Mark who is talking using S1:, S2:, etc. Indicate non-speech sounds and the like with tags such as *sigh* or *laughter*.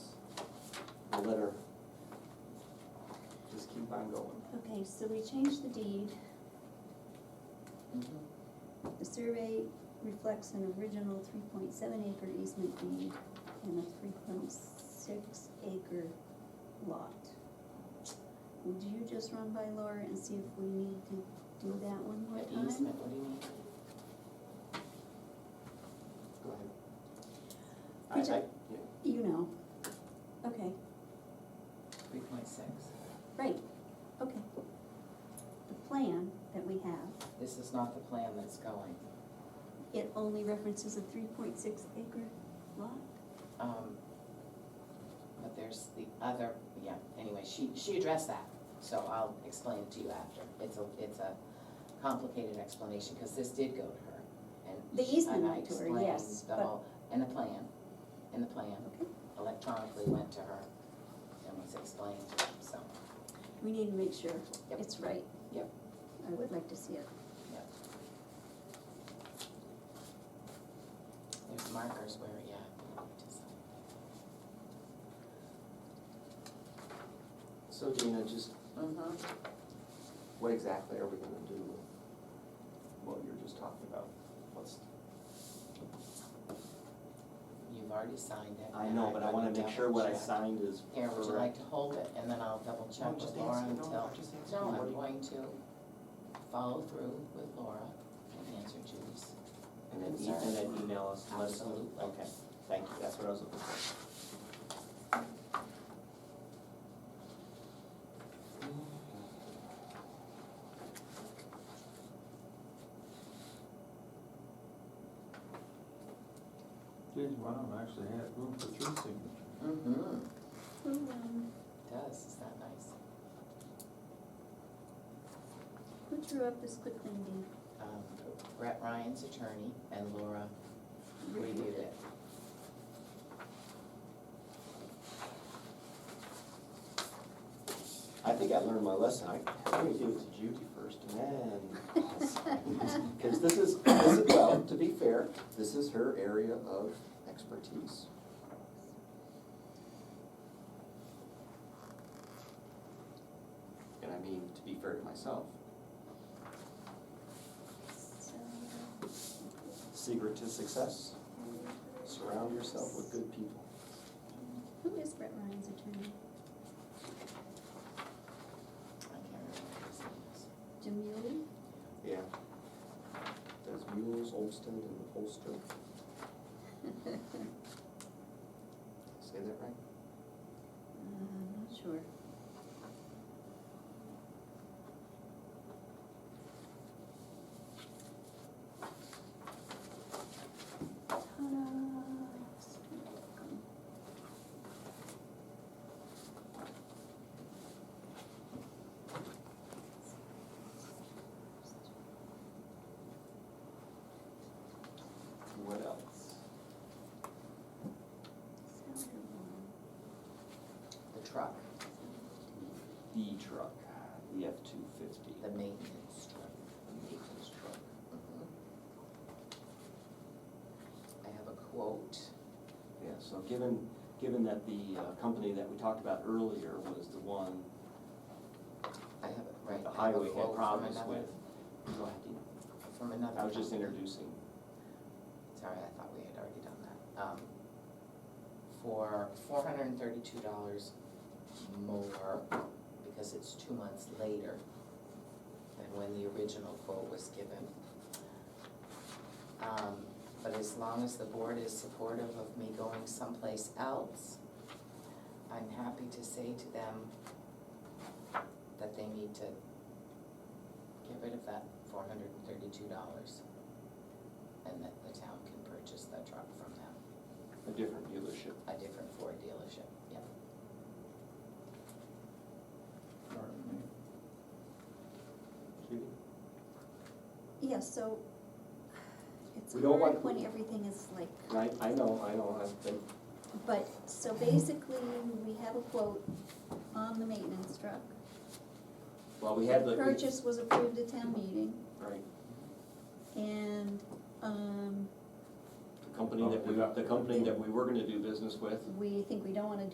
S1: I'll let her just keep on going.
S2: Okay, so we changed the deed. Mm-hmm. The survey reflects an original three point seven acre easement deed and a three point six acre lot. Would you just run by Laura and see if we need to do that one more
S3: What
S2: time?
S3: easement, what do you mean?
S1: Go ahead.
S2: Which
S1: I, I,
S2: I- You know. Okay,
S3: Three point six,
S2: right, okay. The plan that we have,
S3: this is not the plan that's going.
S2: it only references a three point six acre lot?
S3: Um, But there's the other, yeah, anyway, she, she addressed that, so I'll explain it to you after. It's a, it's a complicated explanation, because this did go to her, and.
S2: The
S3: she- and
S2: easement
S3: I
S2: went to her,
S3: explained
S2: yes,
S3: The
S2: but-
S3: whole, and the plan, and the plan
S2: Okay.
S3: electronically went to her and was explained, so,
S2: We need to make sure
S3: Yep.
S2: it's right.
S3: Yep.
S2: I would like to see it.
S3: yeah. There's markers where, yeah. we need to sign.
S1: so Dana, just
S3: Mhm.
S2: Mm-hmm.
S1: what exactly are we gonna do with what you were just talking about? What's,
S3: You've already signed it.
S1: I
S3: and
S1: know,
S3: I've
S1: but I wanna
S3: already
S1: make sure what I
S3: double-checked.
S1: signed is
S3: Here,
S1: correct.
S3: would you like to hold it, and then I'll double check
S1: I'm
S3: with
S1: just
S3: Laura
S1: asking, no,
S3: until.
S1: I'm just asking
S3: No,
S1: you, what do
S3: I'm
S1: you-
S3: going to follow through with Laura and answer Judy's.
S1: And then, e-
S3: Sorry.
S1: and then email us, let us know.
S3: Absolutely.
S1: Okay, thank you, that's what I was looking for.
S4: Geez, wow, I actually had room for three signatures.
S3: Mm-hmm.
S2: um,
S3: Does, is that nice?
S2: who drew up this quick claim deed?
S3: Um, Brett Ryan's attorney and Laura reviewed it.
S1: I think I learned my lesson, I, let me give it to Judy first and then. I'll
S3: *laughs*
S1: sign. Cause this is, this is, well, to be fair, this is her area of expertise. And I mean, to be fair to myself,
S2: So,
S1: secret to success, surround yourself with good people.
S2: Who is Brett Ryan's attorney?
S3: I can't remember what his name is.
S2: Jim Muley?
S1: Yeah. There's Mules, Olmsted, and Holster.
S2: *laughs*
S1: Say that right?
S2: I'm not sure. Ta-da.
S1: What else?
S3: The truck,
S1: The E truck, the F two fifty.
S3: the maintenance truck. Mm-hmm.
S1: maintenance truck.
S3: I have a quote.
S1: Yeah, so given, given that the uh, company that we talked about earlier was the one
S3: I have, a- right,
S1: the
S3: I have a
S1: highway had
S3: quote from
S1: problems
S3: another-
S1: with. Go ahead, Dina.
S3: From another.
S1: I was just
S3: company.
S1: introducing.
S3: Sorry, I thought we had already done that. Um, For four hundred and thirty-two dollars more, because it's two months later than when the original quote was given. Um, But as long as the board is supportive of me going someplace else, I'm happy to say to them that they need to get rid of that four hundred and thirty-two dollars and that the town can purchase the truck from them,
S1: A different dealership.
S3: a different Ford dealership, yep.
S4: Pardon me.
S1: Judy?
S2: Yeah, so it's
S1: We don't
S2: hard
S1: want-
S2: when everything is like,
S1: I, I know, I know, I've been,
S2: but, so basically, we have a quote on the maintenance truck.
S1: well, we had the.
S2: The purchase was approved at town meeting,
S1: Right,
S2: and, um,
S1: the company that we, the company that we were gonna do business with
S2: we think we don't wanna do